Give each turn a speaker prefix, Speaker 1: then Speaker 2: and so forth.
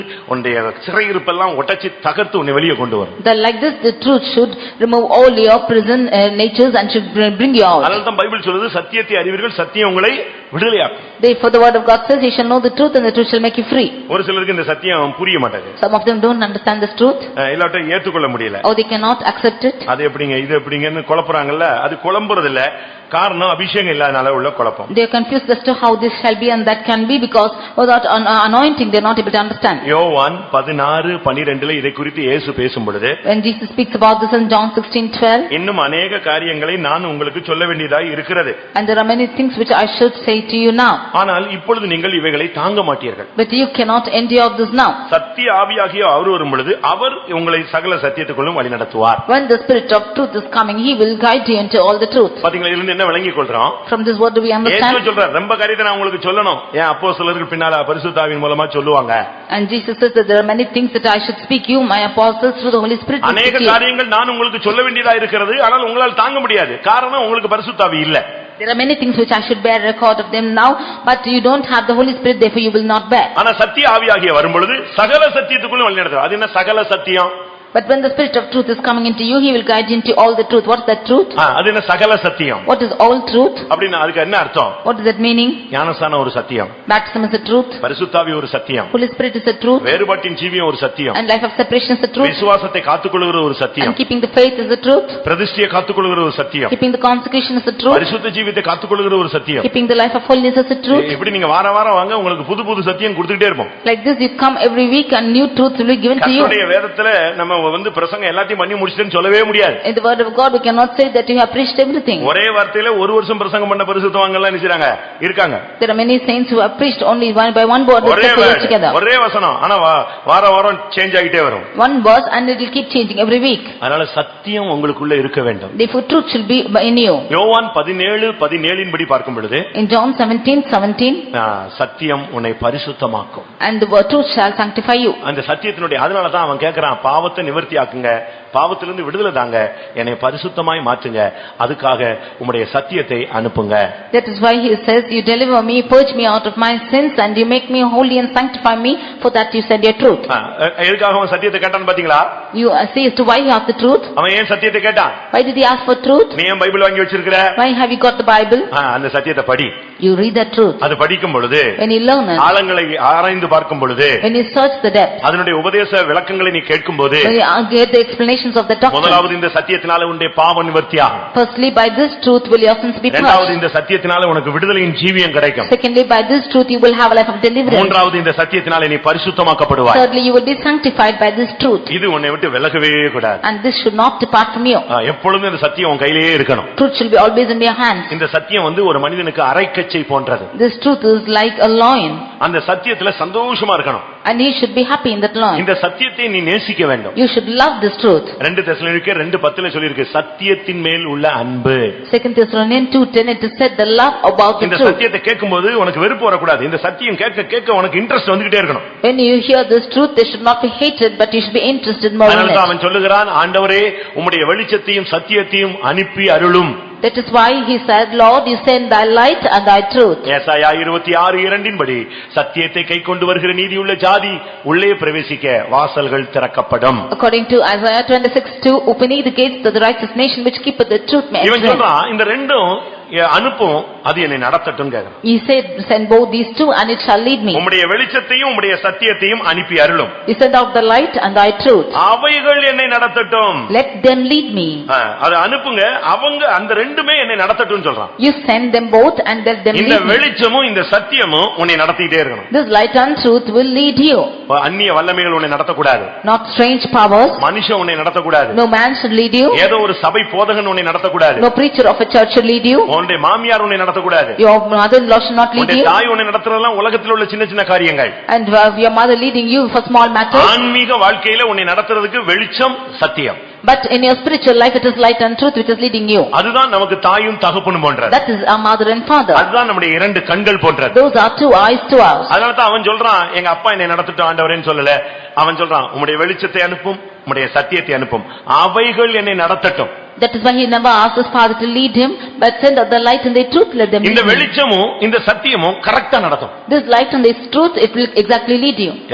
Speaker 1: உன்னுடைய சிறையிருப்பெல்லாம் உடைச்சு தகர்த்து உன்னை வெளியே கொண்டு வரும்
Speaker 2: That like this, the truth should remove all your prison uh, natures and should br- bring you out.
Speaker 1: அதனால தான் பைபிள் சொல்லுது சத்தியத்தை அறிவீர்கள் சத்தியம் உங்களை விடுதலையாக்கும்
Speaker 2: Therefore, the word of God says, "He shall know the truth, and the truth shall make you free."
Speaker 1: ஒரு சிலருக்கு இந்த சத்தியம் புரிய மாட்டேங்குது
Speaker 2: Some of them don't understand this truth,
Speaker 1: அஹ் எல்லாத்தையும் ஏற்றுக்கொள்ள முடியல
Speaker 2: or they cannot accept it.
Speaker 1: அது எப்படிங்க இது எப்படிங்கன்னு குழப்புறாங்கல்ல அது குழம்புறது இல்ல காரணம் அபிஷேகம் இல்லாதனால உள்ள குழப்பம்
Speaker 2: They are confused as to how this shall be and that can be because without an- uh, anointing, they are not able to understand.
Speaker 1: யோவான் பதினாறு பனிரெண்டுல இதை குறித்து இயேசு பேசும் பொழுது
Speaker 2: When Jesus speaks about this in John 16:12,
Speaker 1: இன்னும் அநேக காரியங்களை நான் உங்களுக்கு சொல்ல வேண்டியதாய் இருக்கிறது
Speaker 2: and there are many things which I should say to you now,
Speaker 1: ஆனால் இப்பொழுது நீங்கள் இவைகளை தாங்க மாட்டீர்கள்
Speaker 2: but you cannot endure this now.
Speaker 1: சத்திய ஆவியாகிய அவர் வரும் பொழுது அவர் உங்களை சகல சத்தியத்துக்குள்ளும் வழிநடத்துவார்
Speaker 2: When the spirit of truth is coming, he will guide you into all the truth.
Speaker 1: பாத்தீங்களா இதிலிருந்து என்ன விளங்கிக் கொள்றோம்
Speaker 2: From this word do we
Speaker 1: Yesu
Speaker 2: understand?
Speaker 1: சொல்றார் ரொம்ப காரியத்தை நான் உங்களுக்கு சொல்லணும் ஏன் அப்போ சிலருக்கு பின்னால பரிசுத்தாவின் மூலமா சொல்லுவாங்க
Speaker 2: And Jesus says that there are many things that I should speak you, my apostles, through the Holy Spirit. will
Speaker 1: அநேக
Speaker 2: speak you.
Speaker 1: காரியங்கள் நான் உங்களுக்கு சொல்ல வேண்டியதா இருக்கிறது ஆனால் உங்களால் தாங்க முடியாது காரணம் உங்களுக்கு பரிசுத்தாவி இல்ல
Speaker 2: There are many things which I should bear record of them now, but you don't have the Holy Spirit, therefore you will not bear.
Speaker 1: ஆனா சத்திய ஆவியாகிய வரும் பொழுது சகல சத்தியத்துக்குள்ளும் வழிநடத்துவார் அது என்ன சகல சத்தியம்
Speaker 2: But when the spirit of truth is coming into you, he will guide you into all the truth. What is that truth?
Speaker 1: ஆ, அது என்ன சகல சத்தியம்
Speaker 2: What is all truth?
Speaker 1: அப்படின்னு அதுக்கு என்ன அர்த்தம்
Speaker 2: What is that meaning?
Speaker 1: ஞானஸ்தானம் ஒரு சத்தியம்
Speaker 2: Baptism is a truth,
Speaker 1: பரிசுத்தாவி ஒரு சத்தியம்
Speaker 2: Holy Spirit is a truth,
Speaker 1: வேறுபாட்டின் ஜீவியம் ஒரு சத்தியம்
Speaker 2: and life of separation is a truth,
Speaker 1: விசுவாசத்தை காத்துக்கொள்கிற ஒரு சத்தியம்
Speaker 2: and keeping the faith is a truth,
Speaker 1: பிரதிஷ்டியை காத்துக்கொள்கிற ஒரு சத்தியம்
Speaker 2: keeping the consecration is a truth,
Speaker 1: பரிசுத்த ஜீவியத்தை காத்துக்கொள்கிற ஒரு சத்தியம்
Speaker 2: keeping the life of holiness is a truth.
Speaker 1: இப்படி நீங்க வார வாரம் வாங்க உங்களுக்கு புது புது சத்தியம் கொடுத்துக்கிட்டே இருப்போம்
Speaker 2: Like this, you come every week and new truth will be given to you.
Speaker 1: கர்த்தருடைய வேதத்துல நம்ம வந்து பிரசங்கம் எல்லாத்தையும் பண்ணி முடிச்சிட்டேன்னு சொல்லவே முடியாது
Speaker 2: In the word of God, we cannot say that you have preached everything.
Speaker 1: ஒரே வார்த்தையில ஒரு வருஷம் பிரசங்கம் பண்ண பரிசுத்தவங்க எல்லாம் நினைச்சாங்க இருக்காங்க
Speaker 2: There are many saints who have preached only one by one word,
Speaker 1: ஒரே
Speaker 2: except for
Speaker 1: word,
Speaker 2: us together.
Speaker 1: ஒரே வசனம் ஆனா வா- வார வாரம் சேஞ்ச் ஆகிட்டே வரும்
Speaker 2: One verse and it will keep changing every week.
Speaker 1: அதனால சத்தியம் உங்களுக்குள்ள இருக்க வேண்டும்
Speaker 2: Therefore, truth should be in you.
Speaker 1: யோவான் பதினேழு பதினேழின் படி பார்க்கும் பொழுது
Speaker 2: In John 17, 17,
Speaker 1: ஆ, சத்தியம் உன்னை பரிசுத்தமாக்கும்
Speaker 2: and the word truth shall sanctify you.
Speaker 1: அந்த சத்தியத்தினுடைய அதனால தான் அவன் கேட்கறான் பாவத்தை நிவர்த்தி ஆக்குங்க பாவத்திலிருந்து விடுதலை தாங்க என்னை பரிசுத்தமாய் மாற்றுங்க அதுக்காக உம்முடைய சத்தியத்தை அனுப்புங்க
Speaker 2: That is why he says, "You deliver me, purge me out of my sins, and you make me holy and sanctify me, for that you said your truth."
Speaker 1: ஆ, எ- எதுக்காக அவன் சத்தியத்தை கேட்டான்னு பாத்தீங்களா
Speaker 2: You uh, see as to why you have the truth.
Speaker 1: அவன் ஏன் சத்தியத்தை கேட்டான்
Speaker 2: Why did he ask for truth?
Speaker 1: நீ ஏன் பைபிள் வாங்கி வச்சிருக்கிற
Speaker 2: Why have you got the Bible?
Speaker 1: ஆ, அந்த சத்தியத்தை படி
Speaker 2: You read the truth.
Speaker 1: அது படிக்கும் பொழுது
Speaker 2: When you learn it,
Speaker 1: ஆழங்களை ஆராய்ந்து பார்க்கும் பொழுது
Speaker 2: when you search the depth,
Speaker 1: அதனுடைய உபதேச விளக்கங்களை நீ கேட்கும் போது
Speaker 2: when you uh, get the explanations of the doctrine.
Speaker 1: முதலாவது இந்த சத்தியத்தினால உன்னுடைய பாவ நிவர்த்தியாகும்
Speaker 2: Firstly, by this truth will your sins be
Speaker 1: இரண்டாவது
Speaker 2: purged.
Speaker 1: இந்த சத்தியத்தினால உனக்கு விடுதலையின் ஜீவியம் கிடைக்கும்
Speaker 2: Secondly, by this truth you will have a life of deliverance.
Speaker 1: மூன்றாவது இந்த சத்தியத்தினால நீ பரிசுத்தமாக்கப்படுவாய்
Speaker 2: Thirdly, you will be sanctified by this truth,
Speaker 1: இது உன்னை விட்டு விலகவே கூடாது
Speaker 2: and this should not depart from you.
Speaker 1: ஆ, எப்பொழுதும் இந்த சத்தியம் உன் கையிலேயே இருக்கணும்
Speaker 2: Truth shall be always in your hands.
Speaker 1: இந்த சத்தியம் வந்து ஒரு மனிதனுக்கு அரைக்கச்சை போன்றது
Speaker 2: This truth is like a loin.
Speaker 1: அந்த சத்தியத்துல சந்தோஷமா இருக்கணும்
Speaker 2: And you should be happy in that law.
Speaker 1: இந்த சத்தியத்தை நீ நேசிக்க வேண்டும்
Speaker 2: You should love this truth.
Speaker 1: ரெண்டு தெசலோனிக்கே ரெண்டு பத்துல சொல்லியிருக்கு சத்தியத்தின் மேல் உள்ள அன்பு
Speaker 2: Second Thessalonians two ten, it is said the love about
Speaker 1: இந்த
Speaker 2: the truth.
Speaker 1: சத்தியத்தை கேட்கும்போது உனக்கு வெறுப்பு வரக்கூடாது இந்த சத்தியம் கேட்க கேட்க உனக்கு இன்ட்ரெஸ்ட் வந்துகிட்டே இருக்கணும்
Speaker 2: When you hear this truth, they should not be hated, but you should be interested more in
Speaker 1: அதனால தான்
Speaker 2: it.
Speaker 1: அவன் சொல்லுகிறான் ஆண்டவரே உம்முடைய வெளிச்சத்தையும் சத்தியத்தையும் அனுப்பி அருளும்
Speaker 2: That is why he said, Lord, you send thy light and thy truth.
Speaker 1: ஏசாயா இருபத்தி ஆறு இரண்டின்படி சத்தியத்தை கைக்கொண்டு வருகிற நீதியுள்ள ஜாதி உள்ளே பிரவேசிக்க வாசல்கள் திறக்கப்படும்
Speaker 2: According to Isaiah twenty-six two, open ye the gates to the righteous nation which keepeth the truth may
Speaker 1: இவன்
Speaker 2: enter in."
Speaker 1: சொல்றான் இந்த ரெண்டும் எ- அனுப்பும் அது என்னை நடத்தட்டும் கேக்குறான்
Speaker 2: He said, send both these two and it shall lead me.
Speaker 1: உம்முடைய வெளிச்சத்தையும் உம்முடைய சத்தியத்தையும் அனுப்பி அருளும்
Speaker 2: You send out the light and thy truth.
Speaker 1: அவைகள் என்னை நடத்தட்டும்
Speaker 2: Let them lead me.
Speaker 1: ஆ, அதை அனுப்புங்க அவங்க அந்த ரெண்டுமே என்னை நடத்தட்டும் சொல்றான்
Speaker 2: You send them both and let them
Speaker 1: இந்த
Speaker 2: lead me.
Speaker 1: வெளிச்சமும் இந்த சத்தியமும் உன்னை நடத்திட்டே இருக்கணும்
Speaker 2: This light and truth will lead you.
Speaker 1: இப்ப அந்நிய வல்லமைகள் உன்னை நடத்தக்கூடாது
Speaker 2: Not strange powers.
Speaker 1: மனுஷன் உன்னை நடத்தக்கூடாது
Speaker 2: No man should lead you.
Speaker 1: ஏதோ ஒரு சபை போதகன் உன்னை நடத்தக்கூடாது
Speaker 2: No preacher of a church should lead you.
Speaker 1: உன்னுடைய மாமியார் உன்னை நடத்தக்கூடாது
Speaker 2: Your mother-in-law should not lead
Speaker 1: உன்னுடைய
Speaker 2: you.
Speaker 1: தாய் உன்னை நடத்துறதெல்லாம் உலகத்தில் உள்ள சின்ன சின்ன காரியங்கள்
Speaker 2: And uh, your mother leading you for small matters.
Speaker 1: ஆன்மீக வாழ்க்கையில உன்னை நடத்துறதுக்கு வெளிச்சம் சத்தியம்
Speaker 2: But in your spiritual life, it is light and truth which is leading you.
Speaker 1: அதுதான் நமக்கு தாயும் தகப்பனும் போன்றது
Speaker 2: That is our mother and father.
Speaker 1: அதுதான் நம்முடைய இரண்டு கண்கள் போன்றது
Speaker 2: Those are two eyes to ours.
Speaker 1: அதனால தான் அவன் சொல்றான் எங்க அப்பா என்னை நடத்திட்டு ஆண்டவரேன்னு சொல்லல அவன் சொல்றான் உம்முடைய வெளிச்சத்தை அனுப்பும் உம்முடைய சத்தியத்தை அனுப்பும் அவைகள் என்னை நடத்தட்டும்
Speaker 2: That is why he never asked his father to lead him, but send out the light and the truth, let them
Speaker 1: இந்த
Speaker 2: lead him.
Speaker 1: வெளிச்சமும் இந்த சத்தியமும் கரெக்டா நடத்தும்
Speaker 2: This light and this truth, it will exactly lead you.